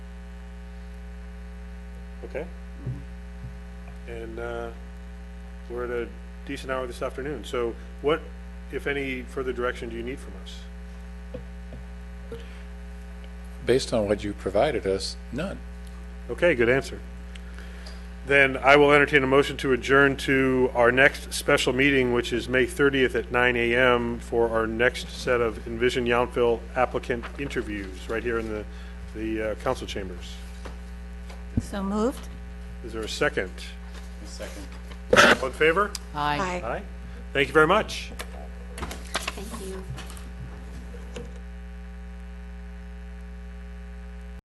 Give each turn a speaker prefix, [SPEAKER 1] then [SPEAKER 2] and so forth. [SPEAKER 1] okay? And uh, we're at a decent hour this afternoon, so what, if any, further direction do you need from us?
[SPEAKER 2] Based on what you provided us, none.
[SPEAKER 1] Okay, good answer. Then I will entertain a motion to adjourn to our next special meeting, which is May 30th at 9 a.m. for our next set of Envision Yountville applicant interviews, right here in the, the uh, council chambers.
[SPEAKER 3] So moved?
[SPEAKER 1] Is there a second? Second. All in favor?
[SPEAKER 3] Aye.
[SPEAKER 1] Aye. Thank you very much.
[SPEAKER 4] Thank you.